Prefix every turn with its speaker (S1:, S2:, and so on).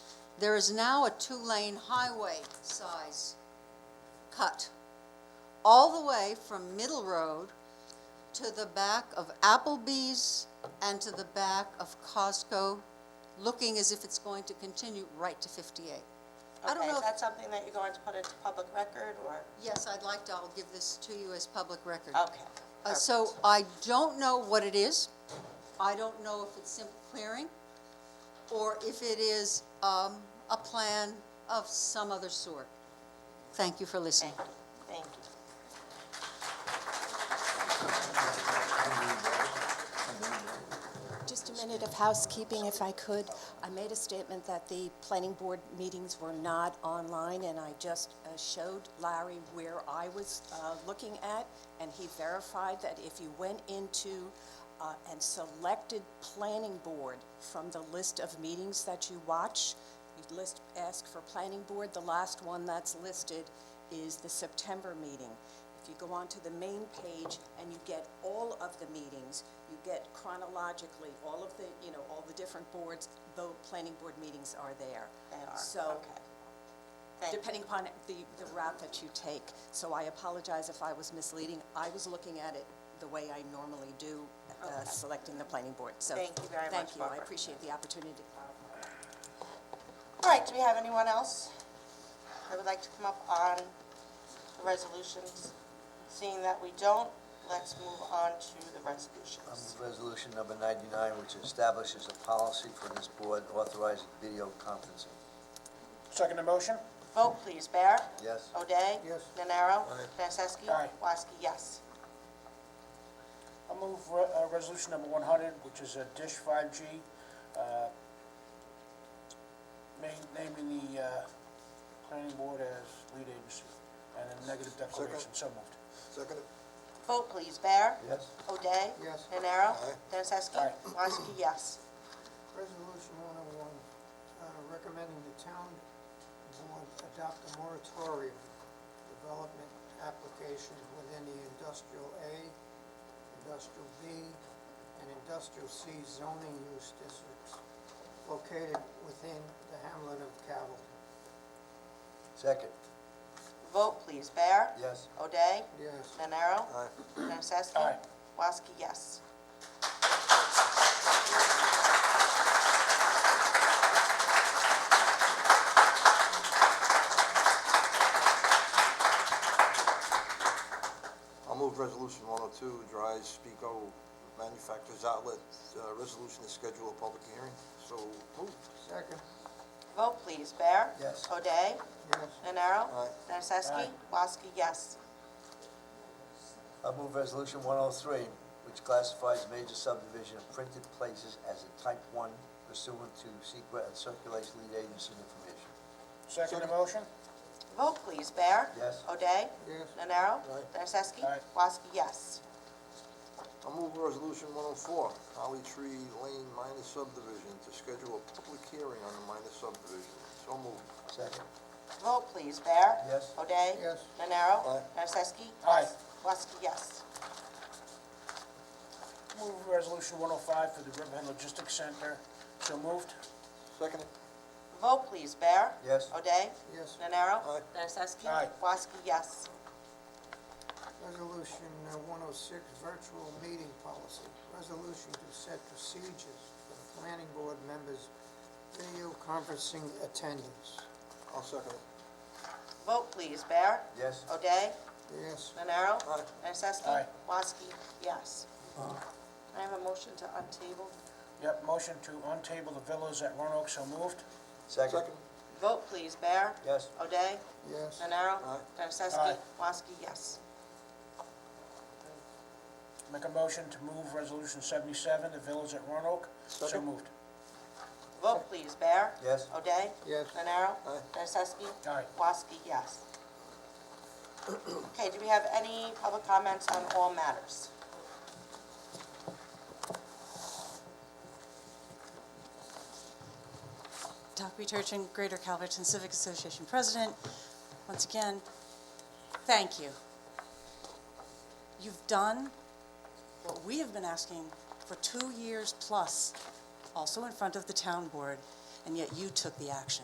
S1: There is now a two-lane highway size cut all the way from Middle Road to the back of Applebee's and to the back of Costco, looking as if it's going to continue right to 58. I don't
S2: Okay,
S1: know,
S2: is
S1: if-
S2: that something that you're going to put into public record, or,
S1: yes, I'd like to, I'll give this to you as public record.
S2: okay.
S1: Uh, So I don't know what it is. I don't know if it's simple clearing or if it is um, a plan of some other sort. Thank you for listening.
S2: Thank you, thank you.
S3: Just a minute of housekeeping, if I could. I made a statement that the planning board meetings were not online, and I just uh, showed Larry where I was uh, looking at, and he verified that if you went into uh, and selected planning board from the list of meetings that you watch, you list, ask for planning board, the last one that's listed is the September meeting. If you go onto the main page and you get all of the meetings, you get chronologically, all of the, you know, all the different boards, the planning board meetings are there.
S2: They are,
S3: So,
S2: okay. Thank you.
S3: depending upon the, the route that you take. So I apologize if I was misleading. I was looking at it the way I normally do, uh, selecting the planning board, so.
S2: Thank you very much,
S3: Thank you, I
S2: Barbara.
S3: appreciate the opportunity to clarify.
S2: All right, do we have anyone else that would like to come up on the resolutions? Seeing that we don't, let's move on to the
S4: Um,
S2: resolutions.
S4: Resolution number 99, which establishes a policy for this board authorizing video conferencing.
S5: Second the motion?
S2: Vote, please. Bear?
S4: Yes.
S2: O'Day?
S4: Yes.
S2: Nenaro?
S4: Aye.
S2: Nacesky?
S5: Aye.
S2: Woski, yes.
S5: I'll move re- uh, resolution number 100, which is a Dish 5G, uh, ma- naming the uh, planning board as lead agency, and a negative declaration, so moved.
S6: Second,
S2: Vote, please. Bear?
S4: Yes.
S2: O'Day?
S6: Yes.
S2: Nenaro?
S6: Aye.
S2: Nacesky?
S5: Aye.
S2: Woski, yes.
S6: Resolution 101, uh, recommending the town board adopt a moratorium development application within the industrial A, industrial B, and industrial C zoning use districts located within the hamlet of Cavill.
S4: Second.
S2: Vote, please. Bear?
S4: Yes.
S2: O'Day?
S6: Yes.
S2: Nenaro?
S4: Aye.
S2: Nacesky?
S5: Aye.
S2: Woski, yes.
S7: I'll move resolution one oh two, Dry Speako Manufacturers Outlet, uh, resolution to schedule a public hearing, so moved.
S6: Second,
S2: Vote, please. Bear?
S4: Yes.
S2: O'Day?
S6: yes.
S2: Nenaro?
S7: Aye.
S2: Nacesky?
S5: Aye.
S2: Woski, yes.
S4: I move resolution 103, which classifies major subdivision of printed places as a type 1 pursuant to secret and circulates lead agency information.
S5: Second the motion?
S2: Vote, please. Bear?
S4: Yes.
S2: O'Day?
S6: Yes.
S2: Nenaro?
S7: Aye.
S2: Nacesky?
S5: Aye.
S2: Woski, yes.
S7: I'll move resolution one oh four, Holly Tree Lane minor subdivision, to schedule a public hearing on the minor subdivision, so moved.
S4: Second.
S2: Vote, please. Bear?
S4: Yes.
S2: O'Day?
S6: Yes.
S2: Nenaro?
S7: Aye.
S2: Nacesky?
S5: Aye.
S2: Woski, yes.
S5: Move resolution 105 for the Riverhead Logistics Center, so moved.
S7: Second.
S2: Vote, please. Bear?
S4: Yes.
S2: O'Day?
S6: Yes.
S2: Nenaro?
S7: Aye.
S2: Nacesky?
S5: Aye.
S2: Woski, yes.
S6: Resolution uh, 106, virtual meeting policy. Resolution to set procedures for the planning board members' video conferencing attendance.
S7: I'll second it.
S2: Vote, please. Bear?
S4: Yes.
S2: O'Day?
S6: Yes,
S2: Nenaro?
S7: Aye.
S2: Nacesky?
S5: Aye.
S2: Woski, yes. I have a motion to untable.
S5: Yep, motion to untable the villas at Roanoke, so moved.
S4: Second.
S7: Second.
S2: Vote, please. Bear?
S4: Yes.
S2: O'Day?
S6: yes.
S2: Nenaro?
S7: Aye.
S2: Nacesky?
S5: Aye.
S2: Woski, yes.
S5: Make a motion to move resolution 77, the villas at Roanoke, so
S7: Second.
S5: moved.
S2: Vote, please. Bear?
S4: Yes.
S2: O'Day?
S6: Yes.
S2: Nenaro?
S7: Aye.
S2: Nacesky?
S5: Aye.
S2: Woski, yes. Okay, do we have any public comments on all matters?
S8: Dr. Turchin, Greater Calverton Civic Association President. Once again, thank you. You've done what we have been asking for two years plus, also in front of the town board, and yet you took the action.